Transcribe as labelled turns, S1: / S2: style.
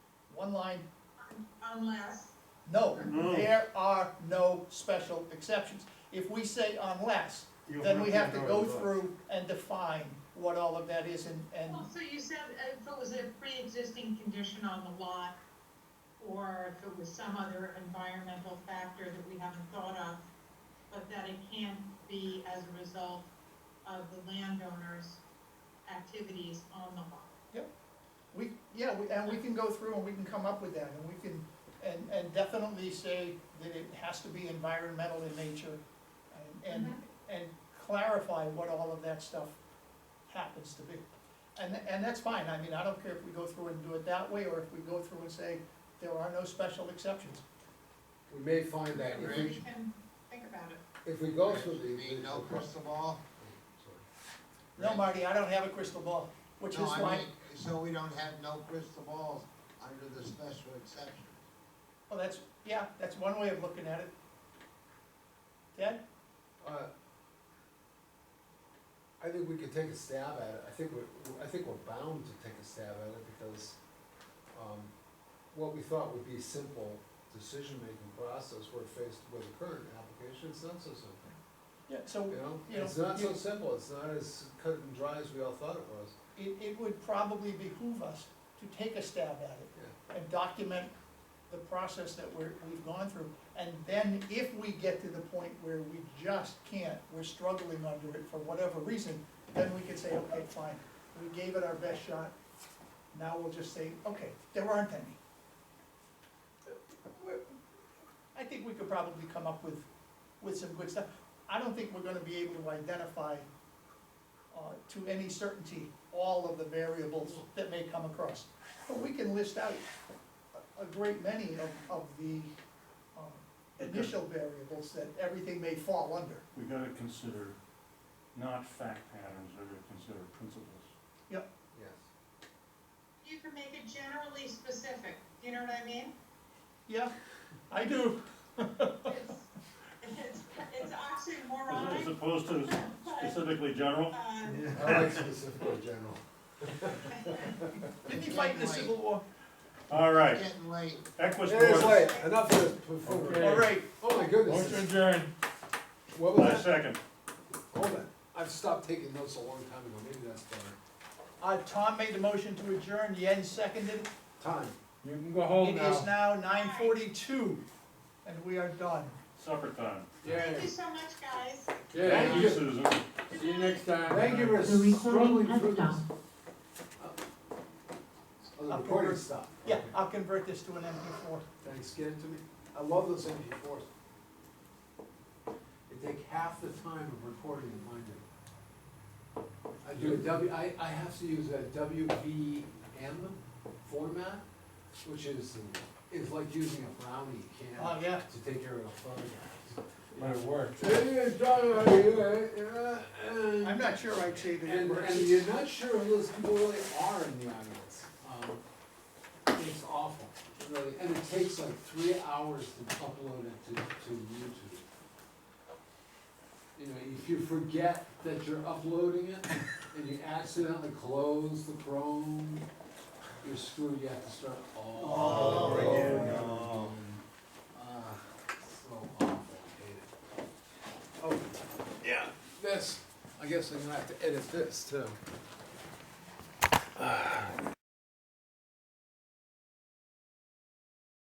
S1: line,
S2: unless,
S1: no,
S3: No.
S1: there are no special exceptions. If we say unless,
S3: You'll
S1: then we have to go
S3: it.
S1: through and define what all of that is and, and,
S2: well, so you said if it was a pre-existing condition on the lot, or if it was some other environmental factor that we haven't thought of, but that it can be as a result of the landowner's activities on the lot.
S1: we, yeah, we, and we can go through and we can come up with that, and we can, and, and definitely say that it has to be environmental in nature, and, and, and clarify what all of that stuff happens to be. And, and that's fine, I mean, I don't care if we go through and do it that way, or if we go through and say, there are no special exceptions.
S4: We may find that if
S2: We
S4: we,
S2: can think about it.
S4: if we go through
S5: You
S4: the.
S5: mean no crystal ball?
S1: No, Marty, I don't have a crystal ball, which is
S5: No, I
S1: why,
S5: mean, so we don't have no crystal balls under the special exception.
S1: well, that's, yeah, that's one way of looking at it. Ted?
S4: Uh, I think we could take a stab at it, I think we're, I think we're bound to take a stab at it because, um, what we thought would be a simple decision-making process, we're faced with a current application, it's not so simple,
S1: Yeah. So
S4: you know?
S1: Yeah,
S4: It's not so
S1: yeah.
S4: simple, it's not as cut and dry as we all thought it was,
S1: it, it would probably behoove us to take a stab at it
S4: yeah.
S1: and document the process that we're, we've gone through. And then if we get to the point where we just can't, we're struggling under it for whatever reason, then we could say, okay, fine, we gave it our best shot. Now we'll just say, okay, there aren't any. We're- I think we could probably come up with, with some good stuff. I don't think we're gonna be able to identify, uh, to any certainty, all of the variables that may come across. But we can list out a great many of, of the um, initial variables that everything may fall under.
S3: We gotta consider not fact patterns, we gotta consider principles.
S4: Yes.
S2: You can make it generally specific, you know what I mean?
S1: Yeah, I do.
S2: It's, it's, it's
S3: As- As
S2: oxymoronic,
S3: opposed to specifically general,
S2: uh,
S4: I like specifically general.
S1: Didn't he fight in the Civil War?
S3: all
S5: It's
S3: right,
S5: Getting late.
S3: Equus
S4: It is
S3: Board,
S4: late, enough of this before,
S1: All right,
S4: oh my goodness,
S3: motion adjourned,
S4: what was that?
S3: I second.
S4: Hold on, I've stopped taking notes a long time ago, maybe that's better.
S1: uh, Tom made the motion to adjourn, Yen seconded.
S4: Time.
S6: You can go
S1: It
S4: Oh,
S6: home now.
S1: is now nine forty-two, and we are done.
S3: supper time.
S2: thank you so much, guys.
S6: Yeah.
S3: Thank you, Susan.
S6: See you next time.
S4: Thank you for
S7: The recording
S4: struggling
S7: has
S4: through this.
S7: stopped.
S4: Oh, the recording stopped.
S1: Yeah,
S4: Okay.
S1: I'll convert this to an MP four.
S4: Thanks, get it to me. I love those MP4s. They take half the time of recording than mine do. I do a W, I, I have to use a WVM format, which is, is like using a brownie
S1: Oh,
S4: can
S1: yeah.
S4: to take care of a photograph.
S6: Might work.
S1: I'm not sure I'd say that it
S4: And,
S1: works.
S4: and you're not sure who those people really are in the audience. Um, It's awful, really, and it takes like three hours to upload it to, to YouTube. You know, if you forget that you're uploading it and you accidentally close the Chrome, you're screwed, you have to start all over again. Ah, so awful, I hate it. Oh, yeah, this, I guess I'm gonna have to edit this too.